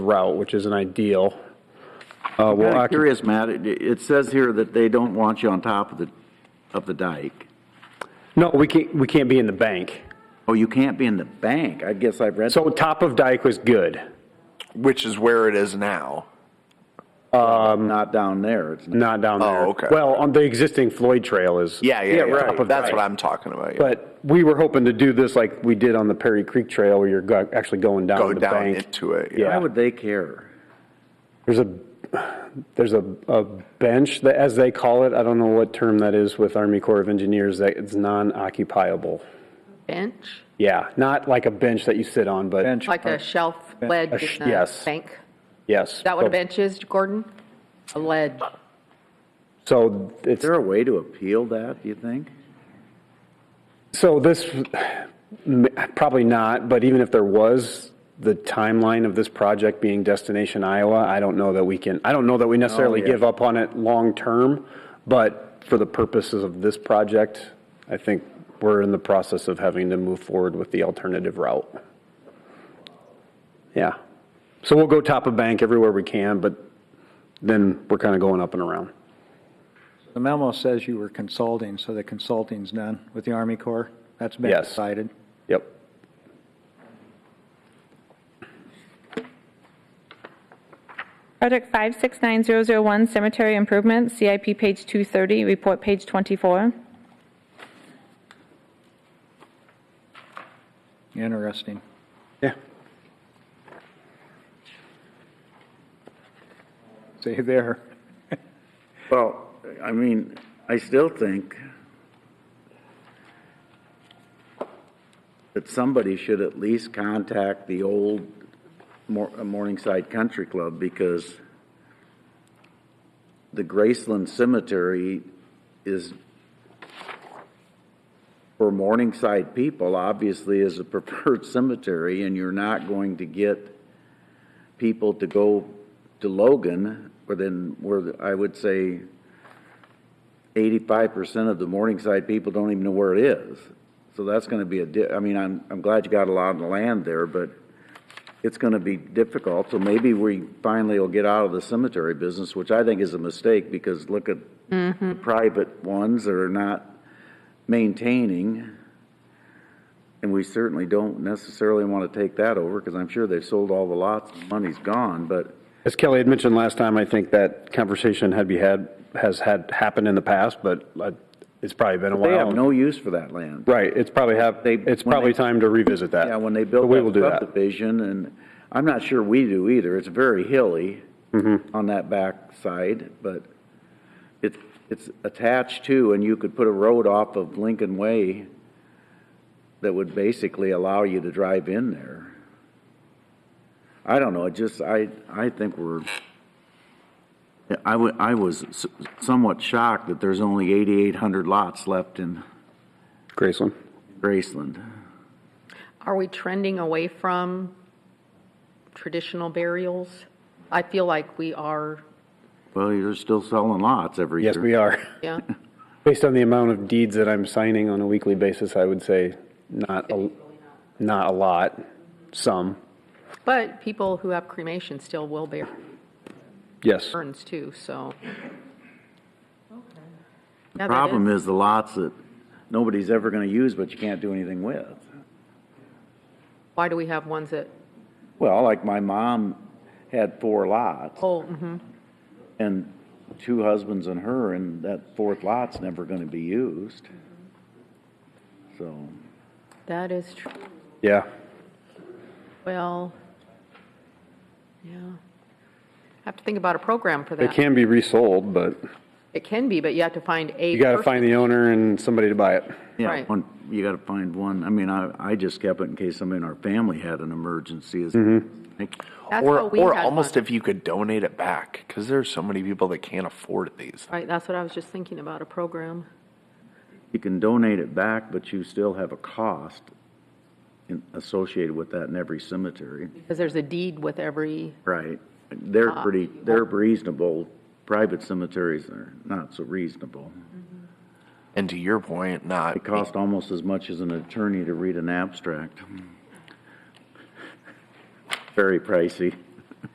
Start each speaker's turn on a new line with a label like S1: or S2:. S1: route, which isn't ideal. Uh,
S2: Kind
S1: Well,
S2: of
S1: occu-
S2: curious, Matt, it, it says here that they don't want you on top of the, of the dike.
S1: no, we can't, we can't be in the bank.
S2: Oh, you can't be in the bank, I guess I've read.
S1: So top of dike was good.
S3: which is where it is now.
S2: Not down there, it's,
S1: Not down there.
S3: Oh, okay.
S1: Well, on the existing Floyd Trail is.
S3: Yeah, yeah, yeah.
S1: top of
S3: That's
S1: dike.
S3: what I'm talking about. Yeah.
S1: But we were hoping to do this like we did on the Perry Creek Trail, where you're go- actually going
S3: Go
S1: down the
S3: down
S1: bank.
S3: into it.
S1: Yeah.
S2: why would they care?
S1: There's a, there's a, a bench that, as they call it, I don't know what term that is with Army Corps of Engineers, that it's non-occupiable.
S4: bench,
S1: Yeah, not like a bench that you sit on, but
S4: like a shelf ledge
S1: A sh-
S4: in the
S1: yes.
S4: bank.
S1: yes.
S4: Is that what a bench is, Gordon? A ledge.
S1: So it's
S2: Is there a way to appeal that, do you think?
S1: So this, m- probably not, but even if there was, the timeline of this project being Destination Iowa, I don't know that we can, I don't know that we necessarily
S2: yeah.
S1: give up on it long-term, but for the purposes of this project, I think we're in the process of having to move forward with the alternative route. Yeah. So we'll go top of bank everywhere we can, but then we're kind of going up and around.
S5: The memo says you were consulting, so the consulting's done with the Army Corps. That's been
S1: Yes.
S5: decided.
S1: Yep.
S6: Project 569001, Cemetery Improvement, CIP page 230, report page 24.
S5: Interesting.
S1: Yeah.
S5: See there.
S2: Well, I mean, I still think that somebody should at least contact the old Mor- uh, Morningside Country Club because the Graceland Cemetery is, for Morningside people, obviously is a preferred cemetery and you're not going to get people to go to Logan, where then, where I would say eighty-five percent of the Morningside people don't even know where it is. So that's gonna be a di- I mean, I'm, I'm glad you got a lot of land there, but it's gonna be difficult, so maybe we finally will get out of the cemetery business, which I think is a mistake, because look at the private ones that are not maintaining. And we certainly don't necessarily want to take that over, because I'm sure they've sold all the lots, and money's gone, but
S1: As Kelly had mentioned last time, I think that conversation had be had, has had happened in the past, but uh, it's probably been a
S2: they have
S1: while.
S2: no use for that land.
S1: Right, it's probably have,
S2: They-
S1: it's
S2: when
S1: probably
S2: they-
S1: time to revisit that.
S2: Yeah, when they built
S1: But we will
S2: that
S1: do that.
S2: subdivision, and I'm not sure we do either, it's very hilly
S1: Mm-hmm.
S2: on that back side, but it's, it's attached to, and you could put a road off of Lincoln Way that would basically allow you to drive in there. I don't know, it just, I, I think we're, I wa- I was s- somewhat shocked that there's only 8,800 lots left in
S1: Graceland.
S2: Graceland.
S4: Are we trending away from traditional burials? I feel like we are,
S2: Well, you're still selling lots every year.
S1: Yes, we are.
S4: yeah.
S1: Based on the amount of deeds that I'm signing on a weekly basis, I would say not, a not a lot, some,
S4: But people who have cremation still will bear
S1: yes.
S4: urns too, so.
S2: The Problem is the lots that nobody's ever gonna use, but you can't do anything with.
S4: Why do we have ones that,
S2: Well, like my mom had four lots
S4: oh, mhm.
S2: and two husbands and her, and that fourth lot's never gonna be used. So,
S4: that is true.
S1: Yeah,
S4: Well, yeah. Have to think about a program for that.
S1: it can be resold, but
S4: It can be, but you have to find a.
S1: you gotta
S4: person.
S1: find the owner and somebody to buy it.
S2: yeah,
S4: Right.
S2: one, you gotta find one. I mean, I, I just kept it in case somebody in our family had an emergency. is-
S1: Mm-hmm.
S2: Like,
S4: That's
S3: or
S4: what we
S3: or
S4: had
S3: almost
S4: one.
S3: if you could donate it back because there's so many people that can't afford these.
S4: Right, that's what I was just thinking about, a program.
S2: You can donate it back, but you still have a cost in- associated with that in every cemetery.
S4: Because there's a deed with every,
S2: Right. They're pretty, they're reasonable. Private cemeteries are not so reasonable.
S3: And to your point, not
S2: It costs almost as much as an attorney to read an abstract. Very pricey.